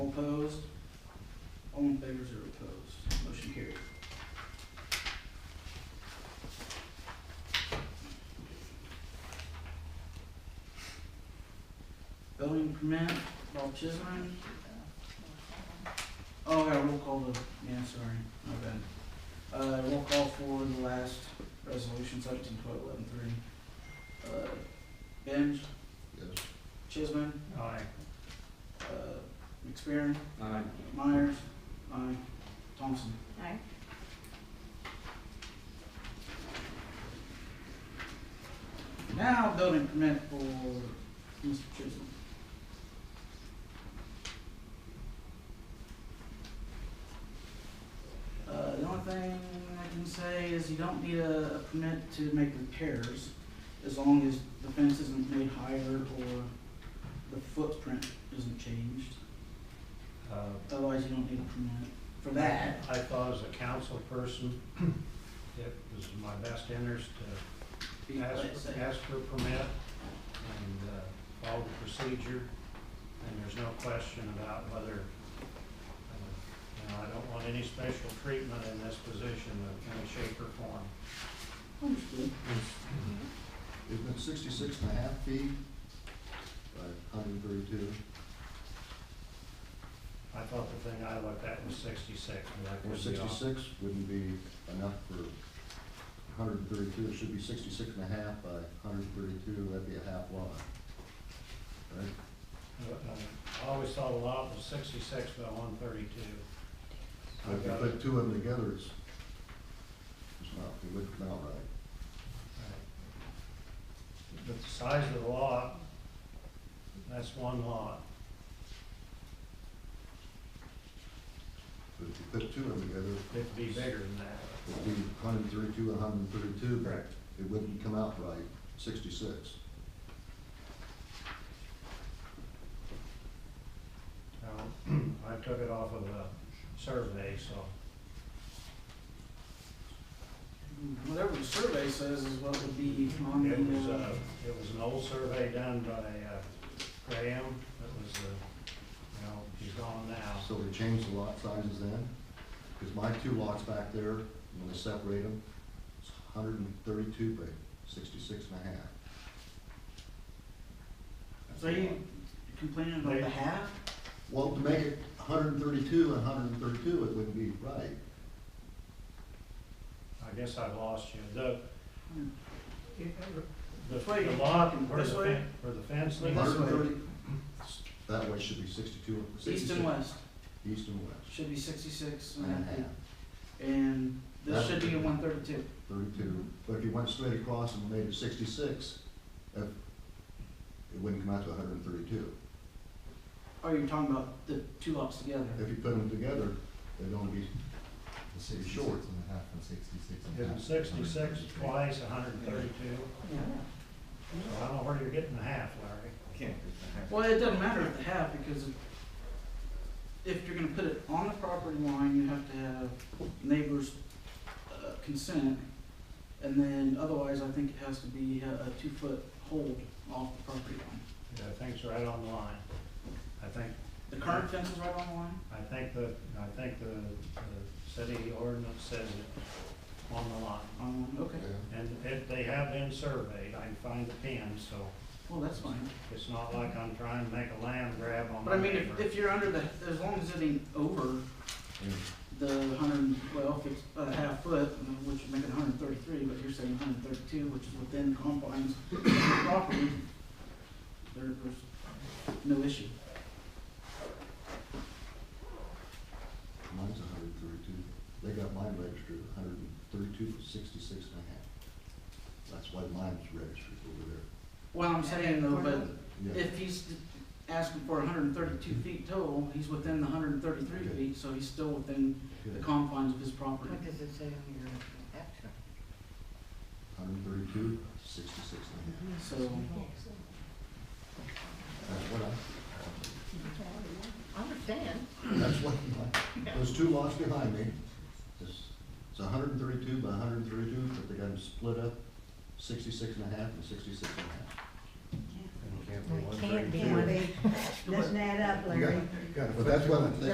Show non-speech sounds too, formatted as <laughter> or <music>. Building permit, Bob Chisholm. Oh, yeah, roll call the, yeah, sorry, my bad. Uh, roll call for the last resolution, seventeen twelve eleven three. Uh, Benj, Yes. Chisholm, Aye. uh, McFerrin, Aye. Myers, aye, Thompson. Aye. Now building permit for Mr. Chisholm. Uh, the only thing I can say is you don't need a, a permit to make repairs as long as the fence isn't made higher or the footprint isn't changed. Uh, Otherwise, you don't need a permit for that. I thought as a council person, <clears throat> it was in my best interest to Be ask, what it say. ask for a permit and uh, follow the procedure. And there's no question about whether, uh, you know, I don't want any special treatment in this position of any shape or form. Understood. It's been sixty-six and a half feet by hundred and thirty-two. I thought the thing I looked at was sixty-six, but I Or could be off. sixty-six wouldn't be enough for hundred and thirty-two, it should be sixty-six and a half by hundred and thirty-two, that'd be a half lot. Right? Uh, I always thought a lot was sixty-six by one thirty-two. But if you put two of them together, it's, it's not, it wouldn't come out right. But the size of the lot, that's one lot. But if you put two of them together, It'd be bigger than that. it'd be hundred and thirty-two and hundred and thirty-two. Correct. It wouldn't come out right, sixty-six. Now, <clears throat> I took it off of a survey, so Whatever the survey says is what would be on it was, the, uh, uh, it was an old survey done by uh, Graham. It was, uh, you know, he's gone now. So they changed the lot sizes then? Because my two lots back there, when they separate them, it's hundred and thirty-two by sixty-six and a half. That's so a you lot. complaining about the half? Well, to make it hundred and thirty-two and hundred and thirty-two, it wouldn't be right. I guess I lost you. The, the This way. the lot where the This way. fence, where the fence Like this is, 130 That way should be sixty-two. East 66 and west East and west, should be sixty-six and a half, And this should be a one thirty-two. thirty-two. But if you went straight across and made it sixty-six, if, it wouldn't come out to hundred and thirty-two. Oh, you're talking about the two lots together? If you put them together, they'd only be, Sixty-six Sure. and a half and sixty-six and a half. is sixty-six twice, hundred and thirty-two. Yeah. So I don't know where you're getting the half, Larry. Can't be. Well, it doesn't matter if the half, because if you're gonna put it on the property line, you have to have neighbors' uh, consent. And then otherwise, I think it has to be a, a two-foot hold off the property line. Yeah, I think it's right on the line. I think, The current fence is right on the line? I think the, I think the, the city ordinance says it on the line. Um, okay, And it, they have been surveyed, I can find the pin, so well, that's fine. it's not like I'm trying to make a land grab on But I my mean, neighbor. if, if you're under the, as long as it ain't over Yeah. the hundred and twelve, it's a half foot, I mean, which would make it hundred and thirty-three, but you're saying hundred and thirty-two, which is within confines of the property, there, there's no issue. Mine's hundred and thirty-two, they got mine registered a hundred and thirty-two, sixty-six and a half. That's why mine's registered over Well, I'm saying though, there. but Yeah, if he's asking for hundred and thirty-two feet total, he's within the hundred and thirty-three Okay. feet, so he's still within the good, confines of his property. What does it say on your action? hundred and thirty-two, sixty-six and a half, So, that's what I, I understand. that's what my, those two lots behind me, is, it's hundred and thirty-two by hundred and thirty-two, but they got them split up, sixty-six and a half and sixty-six and a half. It can't be It can't be 132. one big, doesn't add up, Larry. But that's what I'm